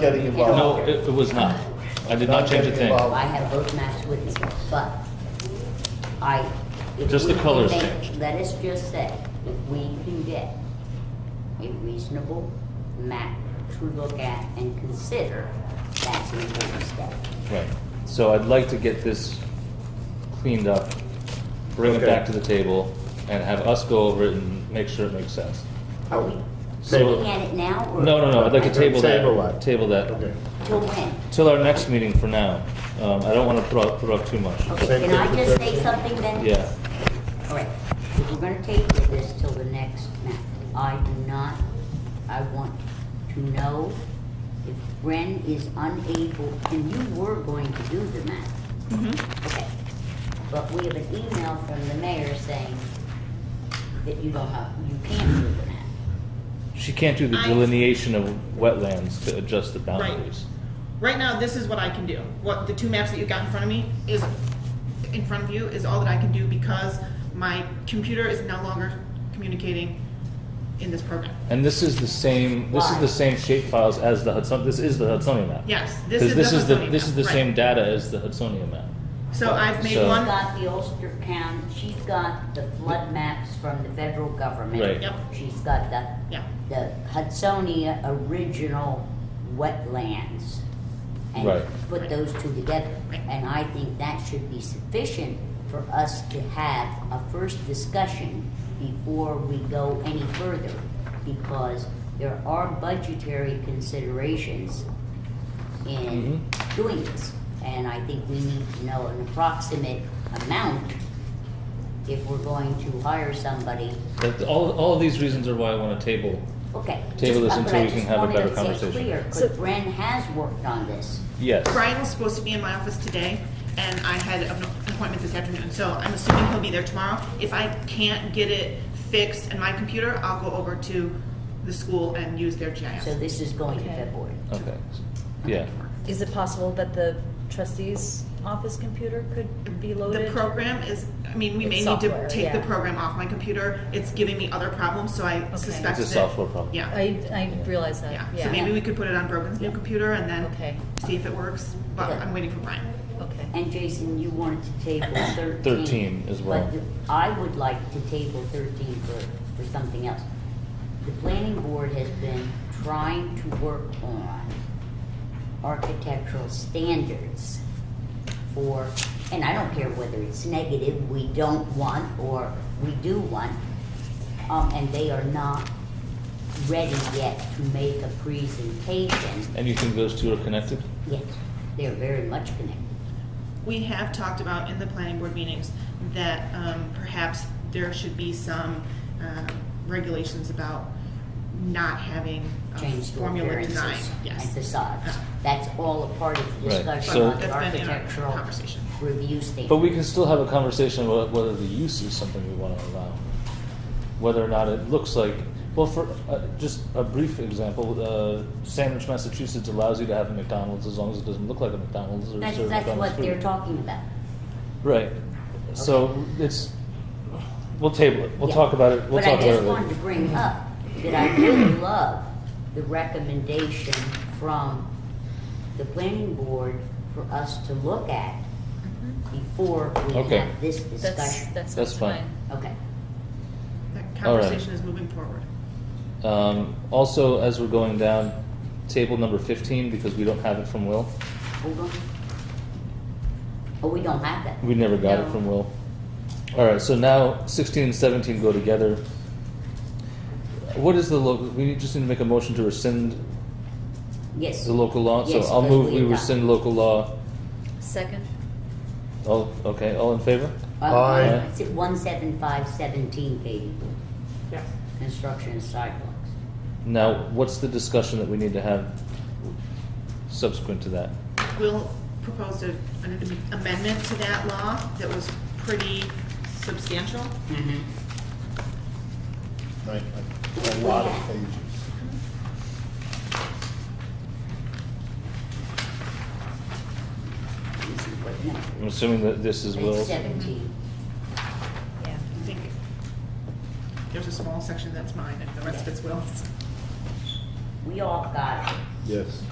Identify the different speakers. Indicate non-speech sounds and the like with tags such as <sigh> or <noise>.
Speaker 1: getting involved.
Speaker 2: No, it it was not. I did not change a thing.
Speaker 1: Well,
Speaker 3: I have both maps with me, but I. if
Speaker 2: Just the
Speaker 3: we can
Speaker 2: colors
Speaker 3: make-
Speaker 2: changed.
Speaker 3: Let us just say, if we can get a reasonable map to look at and consider, that's an important step.
Speaker 2: Right. So I'd like to get this cleaned up, bring it
Speaker 1: Okay.
Speaker 2: back to the table, and have us go over it and make sure it makes sense.
Speaker 3: Are we
Speaker 2: So-
Speaker 3: looking at it now or?
Speaker 2: No, no, no, I'd like to table that.
Speaker 1: Table that.
Speaker 2: Table
Speaker 1: Okay.
Speaker 2: that.
Speaker 3: Till when?
Speaker 2: Till our next meeting for now. Um, I don't want to put off, put off too much.
Speaker 3: Okay,
Speaker 1: Same
Speaker 3: can
Speaker 1: thing
Speaker 3: I
Speaker 1: for
Speaker 3: just
Speaker 1: Thursday.
Speaker 3: say something then?
Speaker 2: Yeah.
Speaker 3: All right, if we're gonna take this till the next map, I do not, I want to know if Bren is unable, and you were going to do the map. Okay, but we have an email from the mayor saying that you don't have, you can't do the map.
Speaker 2: She can't do the
Speaker 4: I-
Speaker 2: delineation of wetlands to adjust the boundaries.
Speaker 4: Right now, this is what I can do. What the two maps that you got in front of me is, in front of you, is all that I can do because my computer is no longer communicating in this program.
Speaker 2: And this is the same, this is
Speaker 3: Why?
Speaker 2: the same shape files as the Hudson, this is the Hudsonia map.
Speaker 4: Yes, this is
Speaker 2: Because this
Speaker 4: the
Speaker 2: is the,
Speaker 4: Hudsonia
Speaker 2: this
Speaker 4: map,
Speaker 2: is the
Speaker 4: right.
Speaker 2: same data as the Hudsonia map.
Speaker 4: So I've made
Speaker 2: So-
Speaker 3: She's
Speaker 4: one,
Speaker 3: got the Ulster County, she's got the flood maps from the federal government.
Speaker 2: Right.
Speaker 4: Yep.
Speaker 3: She's got the,
Speaker 4: Yeah.
Speaker 3: the Hudsonia original wetlands.
Speaker 2: Right.
Speaker 3: And put those two together.
Speaker 4: Right.
Speaker 3: And I think that should be sufficient for us to have a first discussion before we go any further. Because there are budgetary considerations in doing this. And I think we need to know an approximate amount if we're going to hire somebody.
Speaker 2: That, all, all of these reasons are why I want to table.
Speaker 3: Okay.
Speaker 2: Table this
Speaker 3: just-
Speaker 2: until
Speaker 3: but I
Speaker 2: we
Speaker 3: just
Speaker 2: can have a
Speaker 3: wanted
Speaker 2: better
Speaker 3: to say
Speaker 2: conversation.
Speaker 3: clear, 'cause
Speaker 5: So-
Speaker 3: Bren has worked on this.
Speaker 2: Yes.
Speaker 4: Brian was supposed to be in my office today, and I had an appointment this afternoon, so I'm assuming he'll be there tomorrow. If I can't get it fixed in my computer, I'll go over to the school and use their
Speaker 3: So
Speaker 4: GIS.
Speaker 3: this is going to
Speaker 5: Okay.
Speaker 3: February.
Speaker 2: Okay. Yeah.
Speaker 5: Is it possible that the trustee's office computer could be loaded?
Speaker 4: The program is, I mean, we may
Speaker 5: It's
Speaker 4: need to
Speaker 5: software,
Speaker 4: take the
Speaker 5: yeah.
Speaker 4: program off my computer. It's giving me other problems, so I suspect
Speaker 2: It's
Speaker 4: that.
Speaker 2: a software problem.
Speaker 4: Yeah,
Speaker 5: I, I realize that,
Speaker 4: yeah.
Speaker 5: yeah.
Speaker 4: So maybe we could put it on Brogan's new computer and then
Speaker 5: Okay.
Speaker 4: see if it works, but
Speaker 3: Yeah.
Speaker 4: I'm waiting for Brian.
Speaker 5: Okay.
Speaker 3: And Jason, you wanted to
Speaker 2: <clears throat>
Speaker 3: table thirteen.
Speaker 2: 13 as well.
Speaker 3: But the- I would like to table thirteen for, for something else. The planning board has been trying to work on architectural standards for, and I don't care whether it's negative, we don't want, or we do want, um, and they are not ready yet to make a presentation.
Speaker 2: And you think those two are connected?
Speaker 3: Yes, they are very much connected.
Speaker 4: We have talked about in the planning board meetings that um, perhaps there should be some um, regulations about not having um,
Speaker 3: change to
Speaker 4: formula
Speaker 3: appearances
Speaker 4: design.
Speaker 3: and
Speaker 4: Yes.
Speaker 3: facades.
Speaker 4: Yeah.
Speaker 3: That's all a part of the
Speaker 2: Right,
Speaker 3: discussion
Speaker 2: so-
Speaker 3: on the
Speaker 4: That's been in our
Speaker 3: architectural
Speaker 4: conversation.
Speaker 3: review standard.
Speaker 2: But we can still have a conversation about whether the use is something we want to allow. Whether or not it looks like, well, for uh, just a brief example, uh, Sandwich, Massachusetts allows you to have a McDonald's as long as it doesn't look like a McDonald's or
Speaker 3: That's,
Speaker 2: serve
Speaker 3: that's
Speaker 2: McDonald's
Speaker 3: what
Speaker 2: food.
Speaker 3: they're talking about.
Speaker 2: Right. So it's, we'll table it. We'll talk about it. We'll
Speaker 3: But
Speaker 2: talk
Speaker 3: I
Speaker 2: about it
Speaker 3: just
Speaker 2: later.
Speaker 3: wanted to bring up that I really love the recommendation from the planning board for us to look at
Speaker 4: Mm-hmm.
Speaker 3: before we
Speaker 2: Okay.
Speaker 3: have this
Speaker 5: That's,
Speaker 3: discussion.
Speaker 5: that's.
Speaker 2: That's fine.
Speaker 3: Okay.
Speaker 4: That
Speaker 2: All right.
Speaker 4: conversation is moving forward.
Speaker 2: Um, also, as we're going down, table number 15, because we don't have it from Will.
Speaker 3: Hold on. Oh, we don't have that.
Speaker 2: We never got it
Speaker 5: No.
Speaker 2: from Will. All right, so now 16 and 17 go together. What is the local, we just need to make a motion to rescind
Speaker 3: Yes.
Speaker 2: the local law? So
Speaker 3: Yes,
Speaker 2: I'll
Speaker 3: because
Speaker 2: move,
Speaker 3: we
Speaker 2: we
Speaker 3: adopt-
Speaker 2: rescind local law.
Speaker 5: Second?
Speaker 2: All, okay, all in favor?
Speaker 1: Aye.
Speaker 3: It's at one seven five seventeen, Katie,
Speaker 4: Yes.
Speaker 3: construction of sidewalks.
Speaker 2: Now, what's the discussion that we need to have subsequent to that?
Speaker 4: Will proposed a- an amendment to that law that was pretty substantial.
Speaker 1: right, like, A lot of pages.
Speaker 3: Let me see what number.
Speaker 2: I'm assuming that this is
Speaker 3: It's
Speaker 2: Will's.
Speaker 3: seventeen.
Speaker 5: Yeah.
Speaker 4: I think there's a small section that's mine and the rest of it's Will's.
Speaker 3: We all got it.
Speaker 1: Yes.